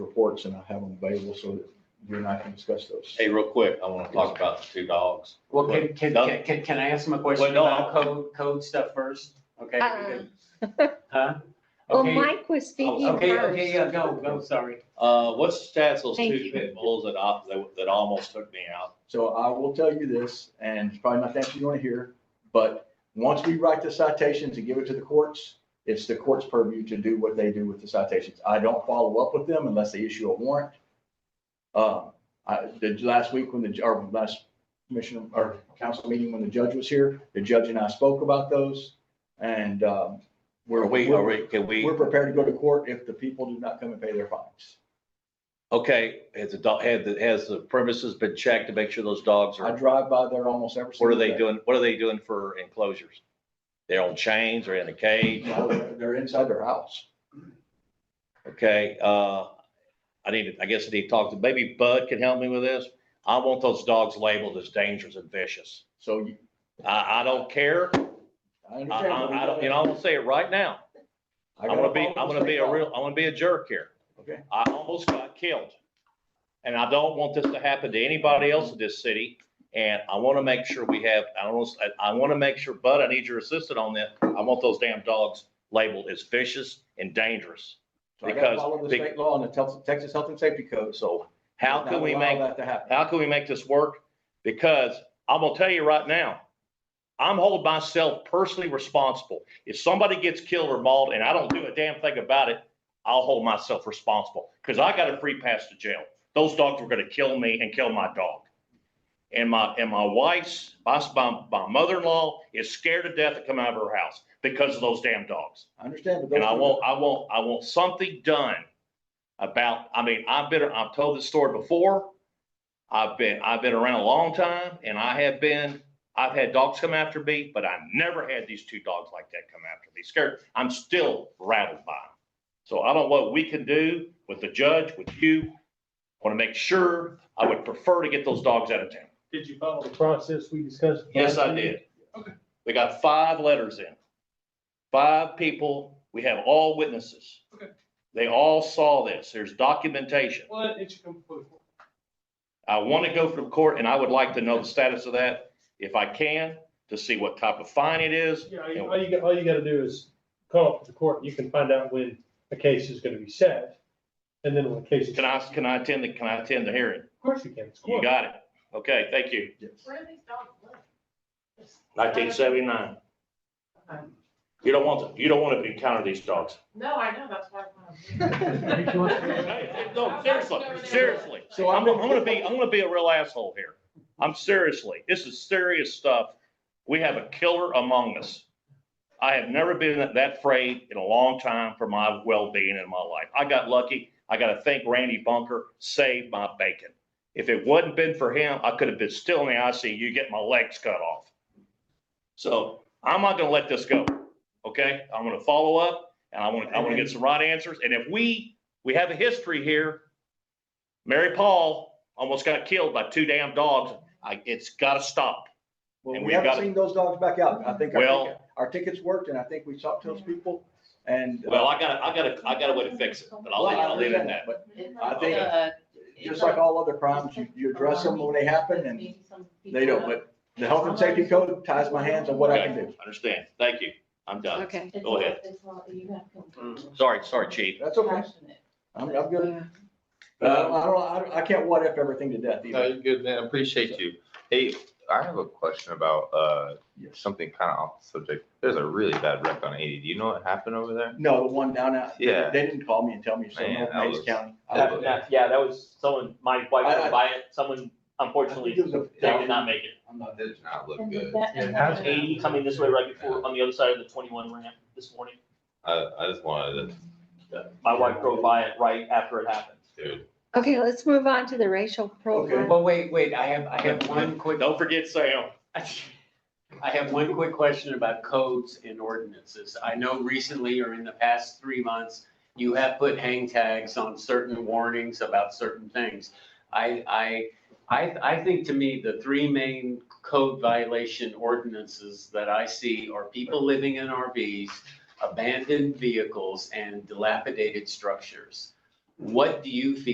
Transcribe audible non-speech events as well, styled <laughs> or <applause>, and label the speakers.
Speaker 1: reports and I have them available so that you and I can discuss those.
Speaker 2: Hey, real quick, I want to talk about the two dogs.
Speaker 3: Well, can, can,
Speaker 2: No.
Speaker 3: can- can, can I ask him a
Speaker 2: Well,
Speaker 3: question
Speaker 2: no,
Speaker 3: about code, code stuff first? Okay.
Speaker 4: Uh, <laughs>
Speaker 3: good. Huh?
Speaker 4: Well,
Speaker 3: Okay.
Speaker 4: Mike was speaking
Speaker 2: Oh,
Speaker 3: Okay, okay,
Speaker 4: first.
Speaker 3: yeah, go, go, sorry.
Speaker 2: Uh, what's the status of those
Speaker 4: Thank
Speaker 2: two
Speaker 4: you.
Speaker 2: pit bulls that, op- that that almost took me out?
Speaker 1: So I will tell you this, and it's probably not the answer you want to hear, but once we write the citations and give it to the courts, it's the court's purview to do what they do with the citations. I don't follow up with them unless they issue a warrant. Uh, I, the last week when the, ju- or last commissioner or council meeting when the judge was here, the judge and I spoke about those. And, um, we're,
Speaker 2: Are we, are we, can we,
Speaker 1: we're prepared to go to court if the people do not come and pay their fines.
Speaker 2: okay, has the dog, had, the- has the premises been checked to make sure those dogs
Speaker 1: I
Speaker 2: are,
Speaker 1: drive by there almost every.
Speaker 2: what are
Speaker 1: single
Speaker 2: they
Speaker 1: day.
Speaker 2: doing, what are they doing for enclosures? They're on chains or in a cage?
Speaker 1: No, They're they're inside their house.
Speaker 2: Okay, uh, I need, to. I guess I need to talk to, maybe Bud can help me with this. I want those dogs labeled as dangerous and vicious.
Speaker 1: So you,
Speaker 2: I, I don't care.
Speaker 1: I
Speaker 2: I,
Speaker 1: understand.
Speaker 2: I, I don't, you know, I'm gonna say it right now.
Speaker 1: I
Speaker 2: I'm
Speaker 1: gotta
Speaker 2: gonna be,
Speaker 1: follow
Speaker 2: I'm
Speaker 1: the
Speaker 2: gonna be
Speaker 1: state
Speaker 2: a
Speaker 1: law.
Speaker 2: real, I'm gonna be a jerk here.
Speaker 1: Okay.
Speaker 2: I almost got killed. And I don't want this to happen to anybody else in this city. And I want to make sure we have, I don't, know, I, I want to make sure, Bud, I need your assistance on that. I want those damn dogs labeled as vicious and dangerous.
Speaker 1: So I gotta
Speaker 2: because-
Speaker 1: follow the
Speaker 2: be-
Speaker 1: state law and the Tel- Texas Health and Safety Code, so.
Speaker 2: How
Speaker 1: not
Speaker 2: can we
Speaker 1: allow
Speaker 2: make,
Speaker 1: That to happen.
Speaker 2: how can we make this work? Because I'm gonna tell you right now, I'm holding myself personally responsible. If somebody gets killed or mauled and I don't do a damn thing about it, I'll hold myself responsible because I got a free pass to jail. Those dogs were gonna kill me and kill my dog. And my, and my wife's, my, my, my mother-in-law is scared to death to come out of her house because of those damn dogs.
Speaker 1: I understand, but. those
Speaker 2: And I
Speaker 1: are-
Speaker 2: want, I want, I want something done about, I mean, I've been, I've told this story before. I've been, I've been around a long time and I have been, I've had dogs come after me, but I never had these two dogs like that come after me. Scared, I'm still rattled by them. So I don't know what we can do with the judge, with you. Want to make sure, I would prefer to get those dogs out of town.
Speaker 5: Did you follow the process we discussed?
Speaker 2: Yes, I did.
Speaker 5: Okay.
Speaker 2: We got five letters in. Five people, we have all witnesses.
Speaker 5: Okay.
Speaker 2: They all saw this. There's documentation.
Speaker 5: Well, it should come before. the court.
Speaker 2: I want to go from court and I would like to know the status of that if I can, to see what type of fine it is.
Speaker 5: Yeah, all you- all you, got- all you gotta do is call up the court, and you can find out when a case is gonna be set, and then when the case is.
Speaker 2: Can I, can I attend, the can I attend the hearing?
Speaker 5: Of course you can, it's
Speaker 2: You
Speaker 5: court.
Speaker 2: got it. Okay, thank you.
Speaker 1: Yes.
Speaker 6: Where are these dogs live?
Speaker 2: Nineteen seventy-nine.
Speaker 6: Um,
Speaker 2: You don't want, to. you don't want to encounter these dogs.
Speaker 6: No, I know, that's why.
Speaker 1: <laughs>
Speaker 6: I'm
Speaker 2: <laughs> Hey, No, seriously, seriously.
Speaker 1: So
Speaker 2: I'm,
Speaker 1: I'm,
Speaker 2: I'm gonna be, I'm gonna be a real asshole here. I'm seriously, this is serious stuff. We have a killer among us. I have never been that- that afraid in a long time for my well-being in my life. I got lucky. I gotta thank Randy Bunker, saved my bacon. If it wasn't been for him, I could have been still in the ICU, get my legs cut off. So I'm not gonna let this go, okay? I'm gonna follow up and I want, I wanna get some right answers. And if we, we have a history here. Mary Paul almost got killed by two damn dogs. I, it's gotta stop.
Speaker 1: well,
Speaker 2: and
Speaker 1: we
Speaker 2: we
Speaker 1: haven't
Speaker 2: gotta-
Speaker 1: seen those dogs back out. I think our
Speaker 2: Well-
Speaker 1: ticket- our tickets worked and I think we talked to those people and. uh,
Speaker 2: Well, I gotta, I gotta, I gotta way to fix it, but I'll,
Speaker 1: well,
Speaker 2: leave-
Speaker 1: I
Speaker 2: I'll leave it at
Speaker 1: understand
Speaker 2: that.
Speaker 1: But
Speaker 6: I
Speaker 1: think- just like all other crimes, you, you address them when they happen and they don't, but the health and safety code ties my hands on what I can do.
Speaker 2: Understand. Thank you. I'm done.
Speaker 4: Okay.
Speaker 2: Go ahead. Mm-hmm. Sorry, sorry, chief.
Speaker 1: That's okay. I'm, I'm good. I don't, Uh, I don't, I don't- I can't what if everything to death
Speaker 7: No,
Speaker 8: Uh,
Speaker 1: either.
Speaker 7: you're good, man. I Appreciate you. Hey, I have a question about uh
Speaker 1: Yes.
Speaker 7: something kind of off the subject. There's a really bad wreck on eighty. Do you know what happened over there?
Speaker 1: No, the one down out. they-
Speaker 7: Yeah.
Speaker 1: They didn't call me and tell me, so
Speaker 7: Man,
Speaker 1: no,
Speaker 7: that
Speaker 1: Maids
Speaker 7: was-
Speaker 1: County. I-
Speaker 7: that
Speaker 8: That- that- Yeah, that was someone, my wife
Speaker 1: I- I-
Speaker 8: was by it, someone unfortunately,
Speaker 1: I think it was a-
Speaker 8: they did not make it.
Speaker 1: I'm not-
Speaker 7: That did not look good.
Speaker 8: Eighty coming this way right before, on the other side of the twenty-one ramp this morning.
Speaker 7: I, I just wanted to,
Speaker 8: My wife drove by it right after it happened.
Speaker 7: dude.
Speaker 4: Okay, let's move on to the racial profile.
Speaker 3: Well, wait, wait, I have, I have one quick,
Speaker 2: Don't forget Sam.
Speaker 3: <laughs> I have one quick question about codes and ordinances. I know recently or in the past three months, you have put hang tags on certain warnings about certain things. I, I, I, I think to me, the three main code violation ordinances that I see are people living in RVs, abandoned vehicles, and dilapidated structures. What do you feel